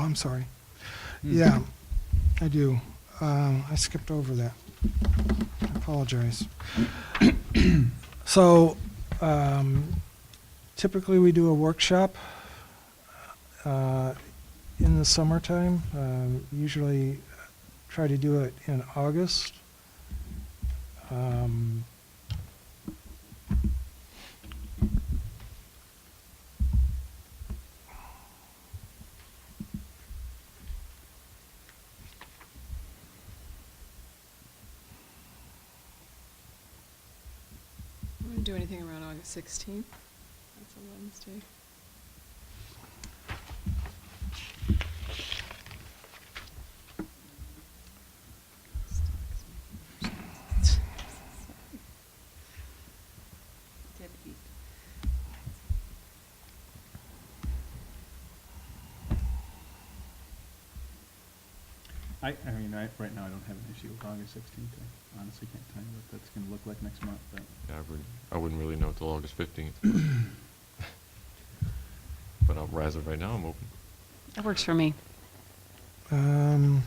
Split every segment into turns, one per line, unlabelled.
Oh, I'm sorry.
Mm.
Yeah, I do. Um, I skipped over that. I apologize. So um, typically, we do a workshop uh, in the summertime. Um, Usually try to do it in August. Um,
I'm going to do anything around August 16th. That's a Wednesday.
I, I mean, I, right now, I don't have an issue with August sixteenth. I honestly can't tell you what that's gonna look like next month, but
Yeah, I wouldn't, I wouldn't really know till August fifteenth. But I'm, as of right now, I'm open.
That works for me.
um,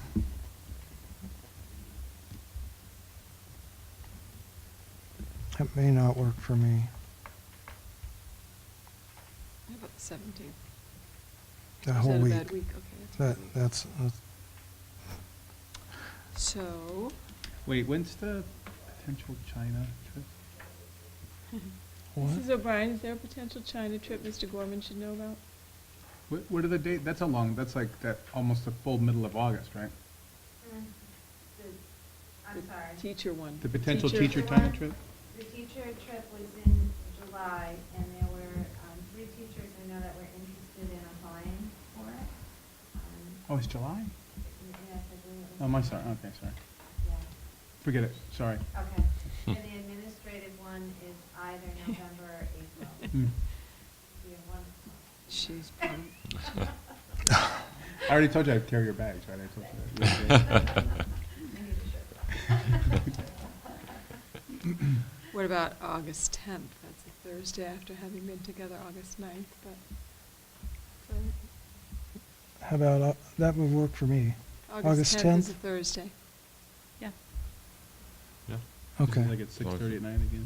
That may not work for me.
How about the 17th?
That whole
Is
week.
that a bad week? Okay.
That,
that's a bad week.
that's, that's-
So,
wait, when's the potential China trip?
what?
Mrs. O'Brien, is there a potential China trip Mr. Gorman should know about?
What, what are the date? That's a long, that's like that, almost the full middle of August, right?
I'm sorry.
teacher one.
The potential teacher
Teacher.
China trip?
The teacher trip was in July, and there were um, three teachers I know that were interested in applying for it. Um,
Oh, it's July?
Yes, I believe it was.
Oh, my, sorry, okay, sorry.
Yeah,
Forget it, sorry.
okay. And the administrative one is either November or April.
Mm.
We have one.
She's part of-
I already told you I'd carry your bags, right? I told you that.
What about August 10th? That's a Thursday after having been together August 9th, but so
How about, uh, that would work for me. August
August 10th is
10th?
a Thursday.
Yeah.
Yeah.
Okay.
Like at
Long
six
as
thirty
you-
at night again?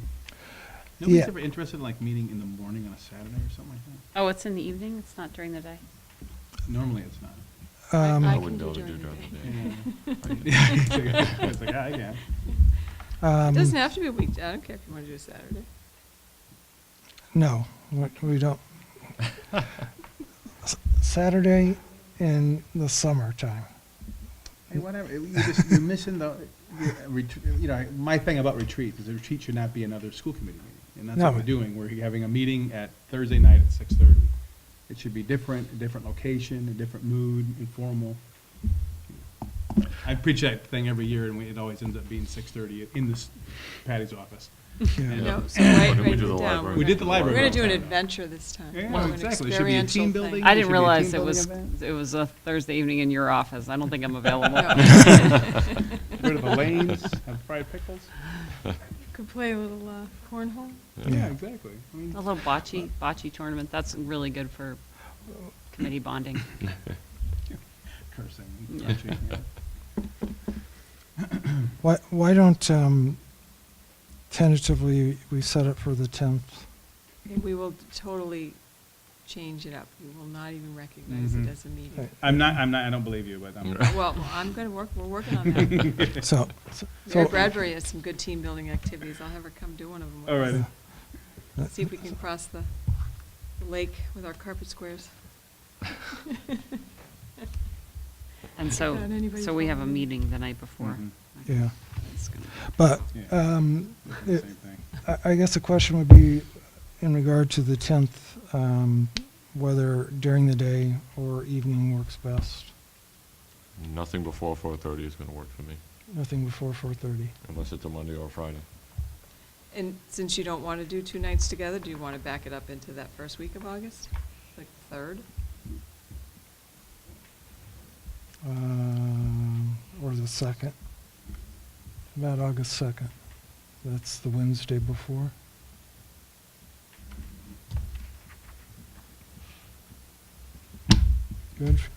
Nobody's
Yeah.
ever interested in like meeting in the morning on a Saturday or something like that?
Oh, it's in the evening? It's not during the day?
Normally it's not.
Um,
I
I
can
wouldn't be
do
able to do
during the
during
day.
the day.
Yeah, Mm. It's like, "Ah, yeah, I can.
It
um,
doesn't have to be a weekday. I don't care if you want to do a Saturday.
No, we- we don't. S- Saturday in the summertime.
Hey, whatever, you just, you're missing the, you- retreat- you know, my thing about retreat is a retreat should not be another school committee meeting. And that's what
No.
we're doing, we're having a meeting at Thursday night at six thirty. It should be different, a different location, a different mood, informal. I preach that thing every year and we- it always ends up being six thirty in this Patty's office.
Yeah.
No, so
Why
write-
don't we
write
do
it
the
down.
library?
We did the
We're
library.
going to do an
downtown.
adventure this time.
Yeah,
We'll do an
exactly. It should be a
experiential
team
thing.
building. It
I
should
didn't
be a
realize
team
it was,
building event.
it was a Thursday evening in your office. I don't think I'm available.
Go to the lanes, have fried pickles.
Could play a little uh, cornhole.
Yeah, exactly. I mean,
A little bocce, bocce tournament, that's really good for committee bonding.
cursing.
Yeah.
crunching, yeah.
Why, why don't um, tentatively we set it for the 10th?
And we will totally change it up. We will not even recognize it
Mhm.
as a meeting.
Mm-hmm. Right.
I'm not, I'm not, I don't believe you, but I'm.
Well, I'm going to work, we're working on that.
So,
Mary
so
Bradbury has some good team building activities. I'll have her come do one of them. with
All
us.
right.
uh,
See if we can cross the the lake with our carpet squares.
And so,
Without anybody
so we have a
following.
meeting the night before.
Mhm.
yeah.
That's gonna-
But
Yeah.
um,
Same
it-
thing.
I- I guess the question would be in regard to the 10th, um, whether during the day or evening works best.
Nothing before four thirty is gonna work for me,
Nothing before 4:30.
unless it's a Monday or a Friday.
And since you don't want to do two nights together, do you want to back it up into that first week of August? Like third?
um, or the second, about August second. That's the Wednesday before. Good, f-